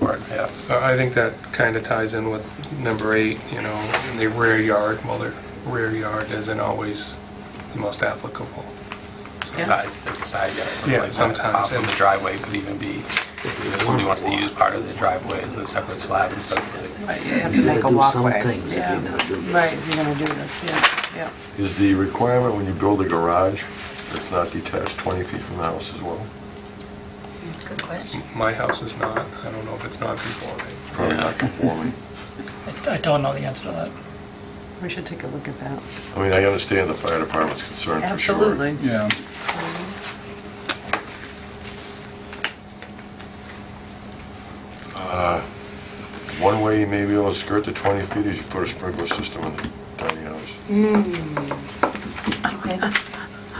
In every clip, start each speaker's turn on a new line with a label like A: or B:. A: Right, yeah. So I think that kind of ties in with number eight, you know, in the rear yard, well, the rear yard isn't always the most applicable.
B: Side, like a side yard, something
A: Yeah,
B: like that.
A: sometimes,
B: Off of
A: yeah.
B: the driveway could even be, if somebody wants to use part of the driveway as a separate slab instead of like,
C: Right, you have
D: You
C: to
D: gotta
C: make a
D: do some
C: walkway.
D: things if you're
C: Yeah.
D: gonna do this.
C: Right, if you're gonna do this, yeah, yeah.
E: Is the requirement when you build a garage that's not detached 20 feet from the house as well?
F: Good question.
A: My house is not, I don't know if it's non-conforming.
E: Probably not conforming.
G: I I don't know the answer to that.
C: We should take a look at that.
E: I mean, I understand the fire department's concern for sure.
C: Absolutely.
B: Yeah.
E: Uh, One way you may be able to skirt the 20 feet is you put a sprinkler system in the tiny house.
F: Okay.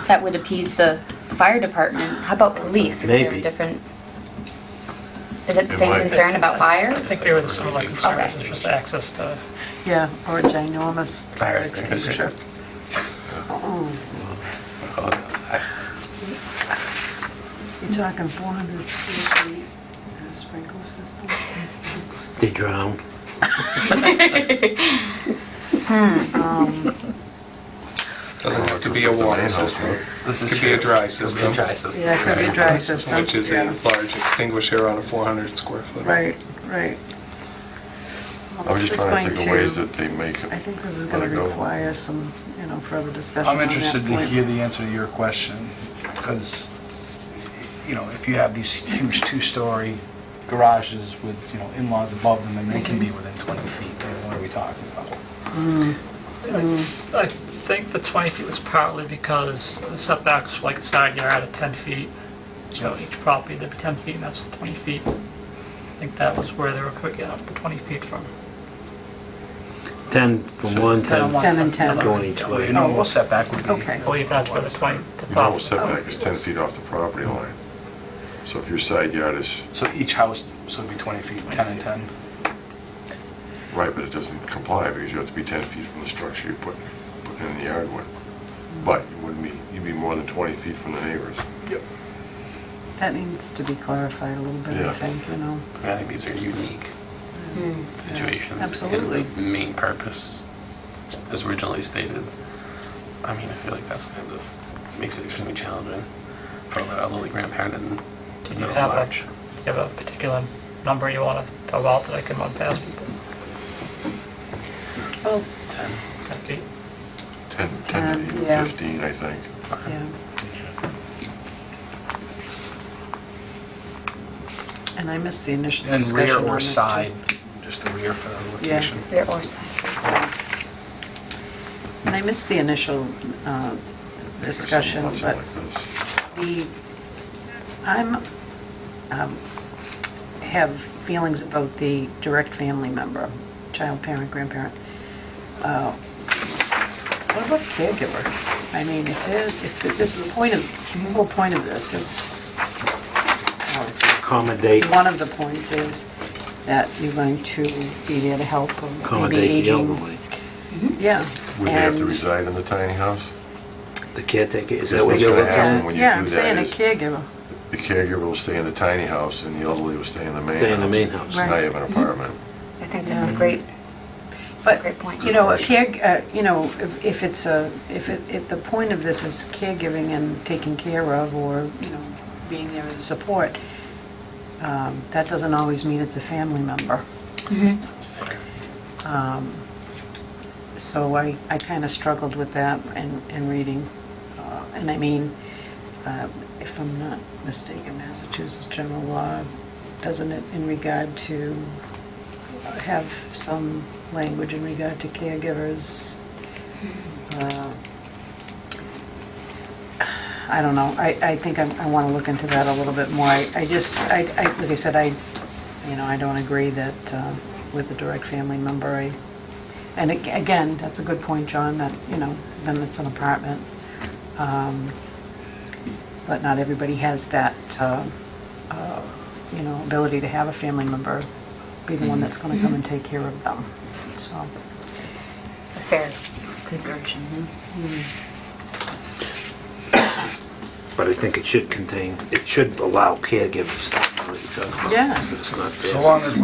F: That would appease the fire department. How about police? Is there
D: Maybe.
F: a different, is it the
E: It
F: same
E: might.
F: concern about
G: I
F: fire?
G: think they were the similar concerns,
F: Okay.
G: it's just access to,
C: Yeah, or a ginormous fire
B: Fire
C: extinguisher.
B: extinguisher. oh, it's outside.
C: You're talking 400 feet and a sprinkler system?
D: They drowned.
C: Um,
A: Doesn't have to be a water system.
B: This is
A: Could be a
B: true.
A: dry
B: Could be a
A: system.
B: dry system.
C: Yeah, it could be a dry system.
A: Which is a
C: yeah.
A: large extinguisher on a 400 square foot.
C: Right, right. Well,
E: I was
C: this
E: just
C: is
E: trying to
C: going
E: think of ways that they make it.
C: I think this is
E: let
C: gonna
E: it go.
C: require some, you know, further discussion on
H: I'm
C: that
H: interested to
C: point.
H: hear the answer to your question, because, you know, if you have these huge two-story garages with, you know, in-laws above them, and they can
C: Mm-hmm.
H: be within 20 feet, then what are we talking about?
G: I think the 20 feet was partly because the setbacks, for, like a side yard of 10 feet, so
H: Yeah.
G: each property, there'd be 10 feet, and that's 20 feet. I think that was where they were getting up the 20 feet from.
D: 10 from one, 10
C: 10 and 10,
D: going each
H: Well,
D: way.
H: your normal setback would be...
C: Okay.
G: I believe that's where the 20, the
E: Your
C: Oh.
E: normal
G: problem.
E: setback is 10 feet off the property line. So if your side yard is,
H: So each house, so it'd be 20 feet, 10 and 10?
E: right, but it doesn't comply because you have to be 10 feet from the structure you're putting, putting in the yard with. But you wouldn't be, you'd be more than 20 feet from the neighbors.
H: Yep.
C: that needs to be clarified a little bit, I
E: Yeah.
C: think, you know.
B: I think these are unique situations. and
C: Hmm, Absolutely.
B: The main purpose, as originally stated, I mean, I feel like that's kind of, makes it extremely challenging for an elderly grandparent and
G: Did you
B: middle
G: have a,
B: large.
G: do you have a particular number you want to throw out that I can run past people?
C: Oh,
B: 10.
G: 10 feet?
E: 10, 10 to
C: Ten,
E: even
C: Um, yeah.
E: 15, I think.
C: Yeah. And I missed the initial
H: And
C: discussion
H: rear
C: on
H: or
C: this, too.
H: side, just the rear for the
C: Yeah.
H: location.
F: Rear or side?
C: And I missed the initial uh,
E: There's some
C: discussion,
E: lots
C: but
E: like this.
C: the, I'm, um, have feelings about the direct family member, child, parent, grandparent. Uh, What about caregiver? I mean, if there's, if this, the point of, the whole point of this is, or
D: Accommodate,
C: One of the points is that you're going to be there to help or maybe
D: accommodate the
C: aging.
D: elderly.
C: Yeah.
E: Would they have to
C: and-
E: reside in the tiny house?
D: The caretaker, is
E: That's
D: that what
E: what's
D: you're
E: gonna
D: looking
E: happen.
D: at?
E: when you
C: Yeah,
E: do
C: I'm
E: that
C: saying a
E: is-
C: caregiver.
E: The caregiver will stay in the tiny house and the elderly will stay in the main house.
D: Stay in the main house.
E: So Now you have an apartment.
F: I think that's a great,
C: But,
F: great point.
C: you know, a care, uh, you know, if- if it's a, if it, if the point of this is caregiving and taking care of or, you know, being there as a support, um, that doesn't always mean it's a family member.
B: That's fair.
C: Um, So I, I kind of struggled with that in, in reading. Uh, And I mean, uh, if I'm not mistaken, Massachusetts general law, doesn't it in regard to have some language in regard to caregivers? Uh, I don't know. I, I think I want to look into that a little bit more. I I just, I, I like I said, I, you know, I don't agree that uh, with the direct family member. I And ag- again, that's a good point, John, that, you know, then it's an apartment. Um, But not everybody has that, uh, uh, you know, ability to have a family member be the one that's going to come and take care of them. So,
F: It's a fair consideration.
D: But I think it should contain, it should allow caregivers.
C: Yeah.
D: But it's not there.
H: So long as